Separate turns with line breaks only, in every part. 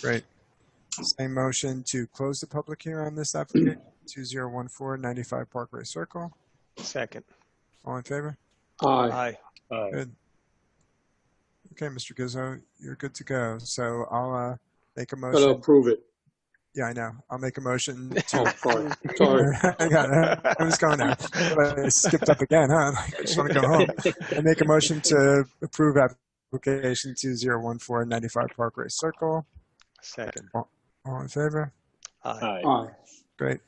Great. Same motion to close the public hearing on this application, 2014 95 Parkway Circle.
Second.
All in favor?
Aye.
Aye.
Good. Okay, Mr. Gizzo, you're good to go. So I'll uh, make a
Gotta
motion.
approve it.
Yeah, I know. I'll make a motion
Oh,
to.
sorry, sorry.
Hang on, I was going there. But I skipped up again, huh? I just want to go home. I make a motion to approve application 2014 95 Parkway Circle.
Second.
All in favor?
Aye.
Aye.
Great.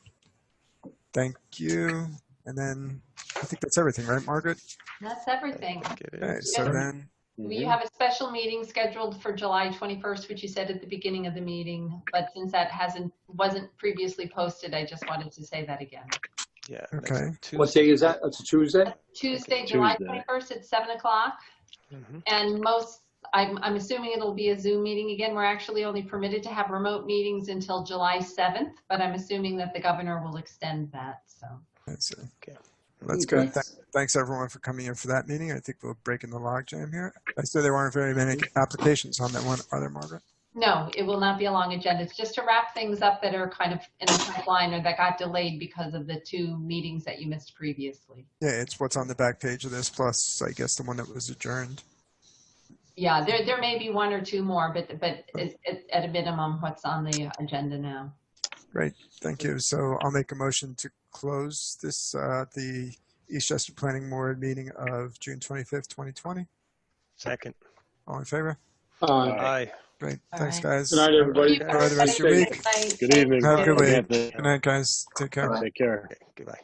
Thank you. And then I think that's everything, right, Margaret?
That's everything.
It is.
Okay, so
Yes.
then,
We have a special meeting scheduled for July 21st, which you said at the beginning of the meeting, but since that hasn't, wasn't previously posted, I just wanted to say that again.
Yeah.
Okay.
next
What day is that? It's a Tuesday?
Tuesday, July
Tuesday.
21st at 7 o'clock,
Mhm.
and most, I'm, I'm assuming it'll be a Zoom meeting again. We're actually only permitted to have remote meetings until July 7th, but I'm assuming that the governor will extend that, so.
that's it.
Okay.
That's
Okay.
good. Tha- Thanks, everyone, for coming in for that meeting. I think we're breaking the logjam here. I said there weren't very many applications on that one. Are there, Margaret?
No, it will not be a long agenda. It's just to wrap things up that are kind of in the pipeline or that got delayed because of the two meetings that you missed previously.
Yeah, it's what's on the back page of this, plus, I guess, the one that was adjourned.
Yeah, there, there may be one or two more, but, but it- it- at a minimum, what's on the agenda now.
Thank you. So I'll make a motion to close this, uh, the Eastchester Planning Board meeting of June 25th, 2020.
Second.
All in favor?
Aye.
Aye.
Great.
All
Thanks,
right.
guys.
Good night, everybody.
Enjoy the rest of your week.
Good evening.
Have a good
Good
Good night, guys. Take care.
Take care.
Okay, Goodbye.